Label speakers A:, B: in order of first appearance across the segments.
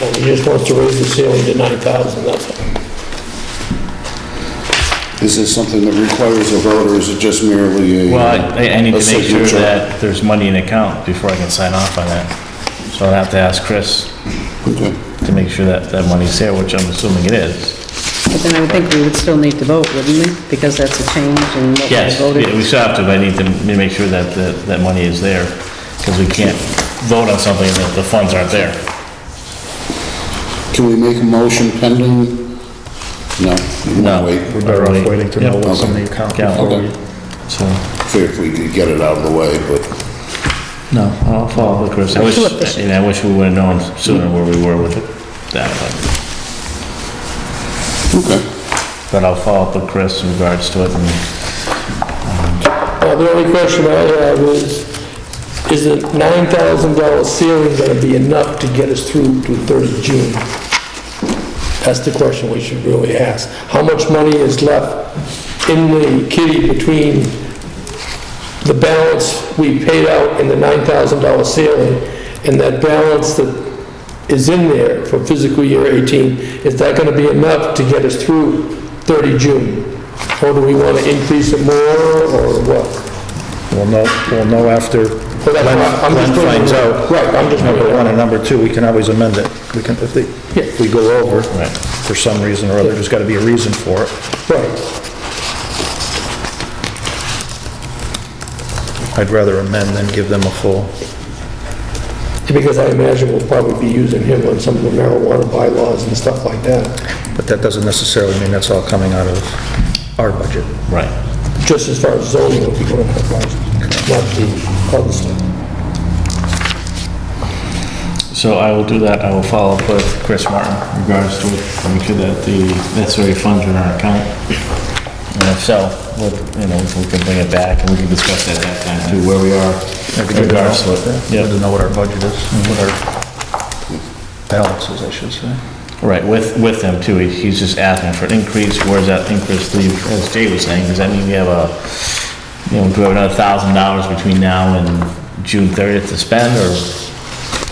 A: Well, He just wants to raise the ceiling to 9,000, that's all.
B: Is this something that requires a vote, or is it just merely a?
C: Well, I, I need
B: a
C: to make sure
B: signature?
C: that there's money in the account before I can sign off on that. So I'll have to ask Chris
B: Okay.
C: to make sure that that money's there, which I'm assuming it is.
D: But then I would think we would still need to vote, wouldn't we? Because that's a change in what we
C: Yes,
D: voted.
C: we still have to, but I need to m- make sure that, that, that money is there, because we can't vote on something that the funds aren't there.
B: Can we make a motion pending? No. we'll
C: No.
B: Wait,
E: We're better off waiting to know
C: Yep.
E: what's in the account
C: Yeah.
E: before we...
C: So,
B: figure if we could get it out of the way, but
C: no, I'll follow with Chris. I wish, and I wish we would've known sooner where we were with that, but,
B: okay.
C: but I'll follow up with Chris in regards to it and
A: Well, the only question I have is, is the $9,000 ceiling gonna be enough to get us through to 30 June? That's the question we should really ask. How much money is left in the kitty between the balance we paid out in the $9,000 ceiling and that balance that is in there for fiscal year 18? Is that gonna be enough to get us through 30 June? Or do we wanna increase it more, or what?
E: We'll know, we'll know after
A: Well, that's
E: Glenn
A: what I'm just
E: Glenn
A: bringing
E: finds
A: it up.
E: out.
A: Right, I'm just bringing
E: Number
A: it
E: one
A: up.
E: and number two, we can always amend it. We can, if they, if we go over
C: Right.
E: for some reason or other, there's got to be a reason for it.
A: Right.
E: I'd rather amend than give them a full,
A: Because I imagine we'll probably be using him on some of the marijuana bylaws and stuff like that,
E: but that doesn't necessarily mean that's all coming out of our budget.
C: Right.
A: just as far as zoning would be going to apply, not the other stuff.
C: So I will do that, I will follow up with Chris Martin in regards to it, make sure that the necessary funds are in our account. And if so, we'll, you know, we can bring it back and we can discuss that at that time too, where we are. in
E: It'd be good to know-
C: regards to it.
E: good to
C: Yep,
E: know what our budget is, and what our balance is, I should say.
C: right, with, with them too, He- he's just asking for an increase, where's that increase leave, as Jay was saying, does that mean we have a, you know, do we have another thousand dollars between now and June thirtieth to spend, or,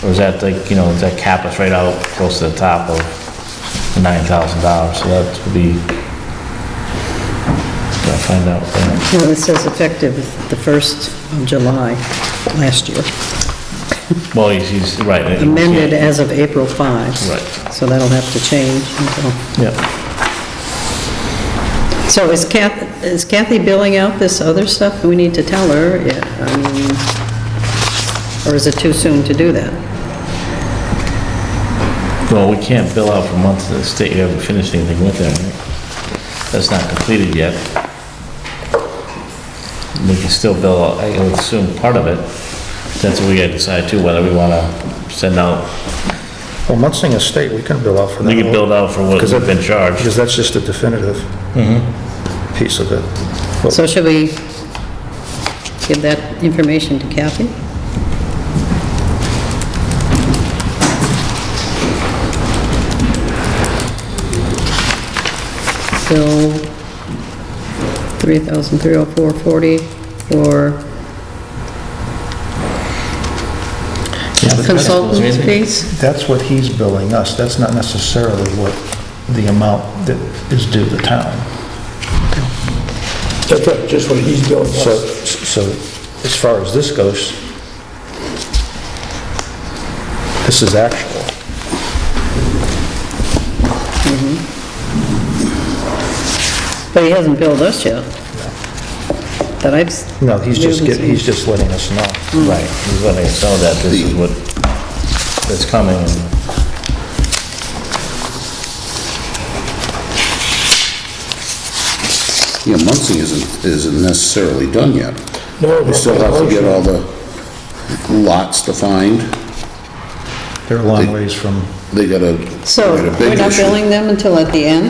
C: or is that like, you know, does that cap us right out close to the top of nine thousand dollars, so that would be, gotta find out. uh,
D: No, it says effective the 1st of July last year,
C: Well, he's, he's, right. it-
D: amended as of April 5.
C: Right.
D: So that'll have to change until,
C: Yeah,
D: so is Kathy, is Kathy billing out this other stuff we need to tell her? Yeah, I mean, or is it too soon to do that?
C: well, we can't bill out for months to the state, you haven't finished anything with them. That's not completed yet. We can still bill, out, I would assume, part of it. That's what we gotta decide too, whether we wanna send out,
E: Well, Munson Estate, we can bill out for that.
C: we can build out for what
E: Because
C: we've been charged. Mm-hmm.
E: Because that's just a definitive piece of it. Well,
D: So should we give that information to Kathy? Bill 3,304.40 for consultants fees?
E: That's what he's billing us, that's not necessarily what the amount that is due the town.
A: That's right, just what he's doing.
E: So, so as far as this goes, this is actual.
D: But he hasn't billed us yet. That I've... s-
E: No, he's just
D: we haven't
E: getting, he's
D: seen.
E: just letting us know.
C: Right, he's letting us know that this is what, that's coming.
B: Yeah, Muncie isn't, isn't necessarily done yet.
A: No,
B: We still have to get all the lots defined.
E: They're a long ways from,
B: They got a,
D: So
B: they got a
D: we're
B: big
D: not
B: issue.
D: billing them until at the end?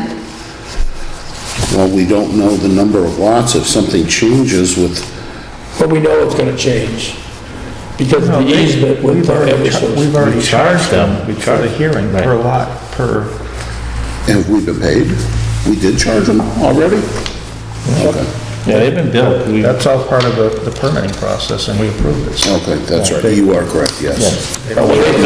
B: Well, we don't know the number of lots. If something changes with,
A: But we know it's gonna change, because of the easement with the Eversource.
E: we've already
C: We charged them.
E: We charged the hearing
C: Right.
E: per lot, per,
B: have we been paid? We did charge them already? Okay,
C: Yeah, they've been billed, we,
E: that's all part of the the permitting process, and we approved it. so-
B: okay, that's right. You are correct, yes.
C: yes.
A: But we-